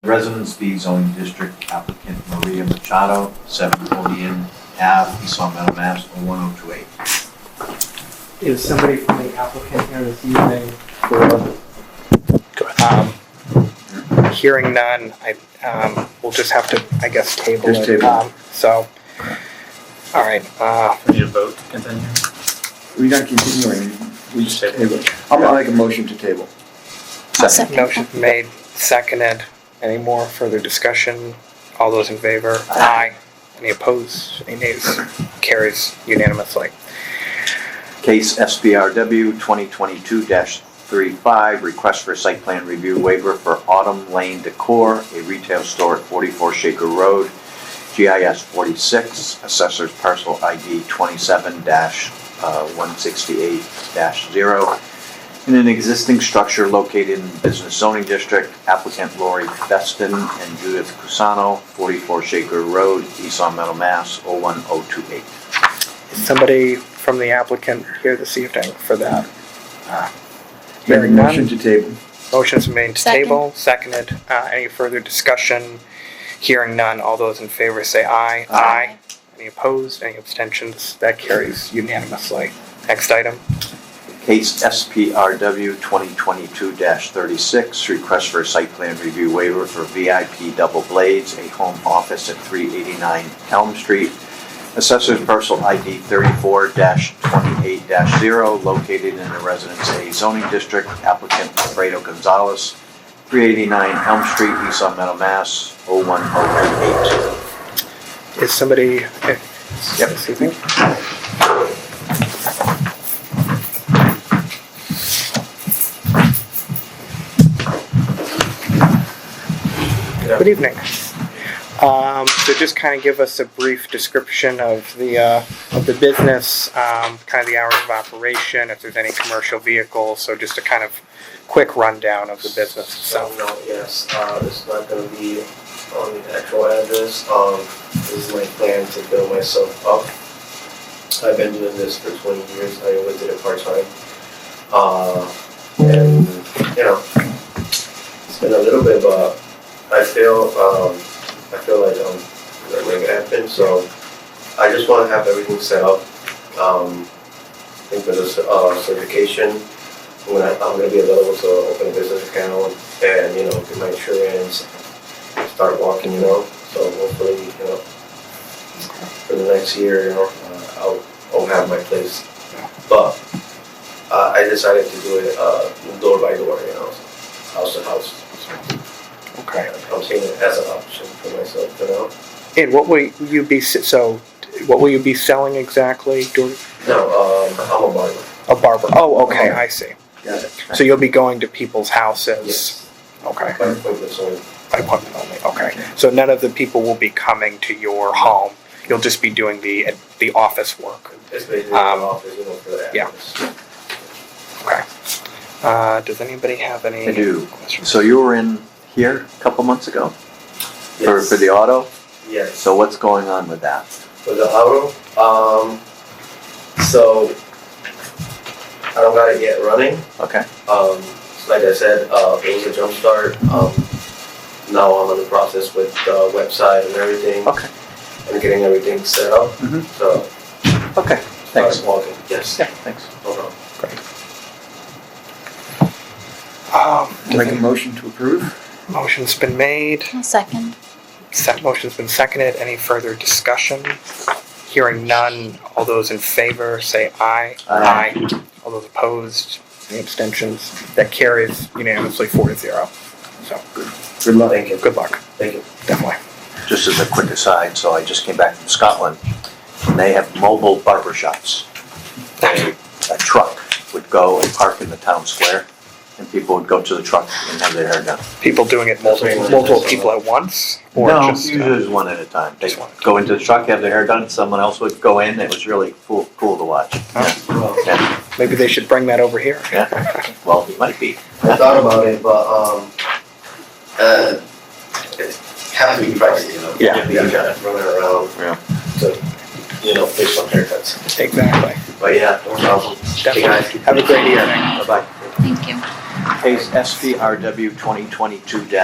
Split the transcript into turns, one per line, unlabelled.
Residence B zoning district applicant Maria Machado, 7 Odeon Ave, East Long Meadow, Mass. 01028.
Is somebody from the applicant here this evening for,
Um, Hearing none, I, um, we'll just have to, I guess, table it.
Just table.
Um, So, all right, uh,
We need a vote to continue.
We're not continuing, we just
Table.
table. I'm gonna make a motion to table.
I'll second.
motion made, seconded. Any more further discussion? All those in favor? Aye. Any opposed? Any nays? Carries unanimously.
Case SBRW 2022-35, request for a site plan review waiver for Autumn Lane Decor, a retail store at 44 Shaker Road, GIS 46, Assessor's Parcel ID uh, 27-168-0, in an existing structure located in Business Zoning District, applicant Lori Feston and Judith Cusano, 44 Shaker Road, East Long Meadow, Mass. 01028.
Is somebody from the applicant here this evening for that? Uh, Hearing none.
Motion to table.
Motion's been made to
Second.
table, seconded. Uh, any further discussion? Hearing none, all those in favor say aye.
Aye.
Any opposed, any abstentions? That carries unanimously. Next item,
Case SPRW 2022-36, request for a site plan review waiver for VIP Double Blades, a home office at 389 Elm Street. Assessors parcel ID 34-28-0, located in the Residence A zoning district. Applicant Alfredo Gonzalez, 389 Elm Street, East Long Meadow, Mass. 01088.
is somebody, eh, yeah, this evening? Good evening. Um, so just kind of give us a brief description of the, uh, of the business, um, kind of the hours of operation, if there's any commercial vehicles, so just a kind of quick rundown of the business
So,
itself.
no, yes, uh, it's not gonna be on the actual address, um, this is my plan to build myself up. I've been doing this for twenty years, I always did it part-time. Uh, and, you know, it's been a little bit, but I feel, um, I feel like, um, that make it happen, so I just wanna have everything set up. Um, I think for this, uh, certification, I'm gonna, I'm gonna be available to open a business account and, you know, get my insurance, start walking, you know, so hopefully, you know, for the next year, you know, uh, I'll, I'll have my place. But, uh, I decided to do it, uh, door by door, you know, house to house.
Okay.
I'm seeing it as an option for myself, you know?
And what will you be, s- so, what will you be selling exactly? Do-
No, um, I'm a barber.
A barber, oh, okay, I see.
Got it.
So you'll be going to people's houses? Okay,
By appointment, so,
by appointment only, okay. So none of the people will be coming to your home, you'll just be doing the, the office work,
it's basically an
Um,
office, you know, for the
yeah.
address.
okay. Uh, does anybody have any?
I do.
questions?
So you were in here a couple months ago for,
Yes.
for the auto?
Yes.
So what's going on with that?
with the auto. Um, so I don't got it yet running.
Okay.
Um, like I said, uh, it was a jump start. Um, now I'm in the process with the website and everything
Okay.
and getting everything set up.
Mhm.
So
Okay. Thanks.
started walking. Yes.
Yeah, thanks.
No problem.
Um,
Make a motion to approve?
motion's been made,
I'll second.
Sec motion's been seconded, any further discussion? Hearing none, all those in favor say aye.
Aye.
All those opposed, any abstentions, that carries unanimously four to zero. So,
Good luck.
Thank you.
good luck,
Thank you.
definitely.
Just as a quick aside, so I just came back from Scotland, and they have mobile barber shops. They- A truck would go and park in the town square, and people would go to the truck and have their hair done.
People doing it multiple, multiple people at once, or
No,
just? uh,
usually it was one at a time. They
just one.
go into the truck, have their hair done, someone else would go in. It was really cool, cool to watch.
Well,
Yeah,
Maybe they should bring that over here.
yeah. Well, it might be.
I thought about it, but um, uh, it has to be pricey, you know.
Yeah.
You gotta run it around.
Yeah.
To, you know, fish some haircuts.
Exactly,
But yeah, no problem. Hey, guys.
definitely. Have a great evening.
Bye-bye.
Thank you.
Case SPRW 2022-35,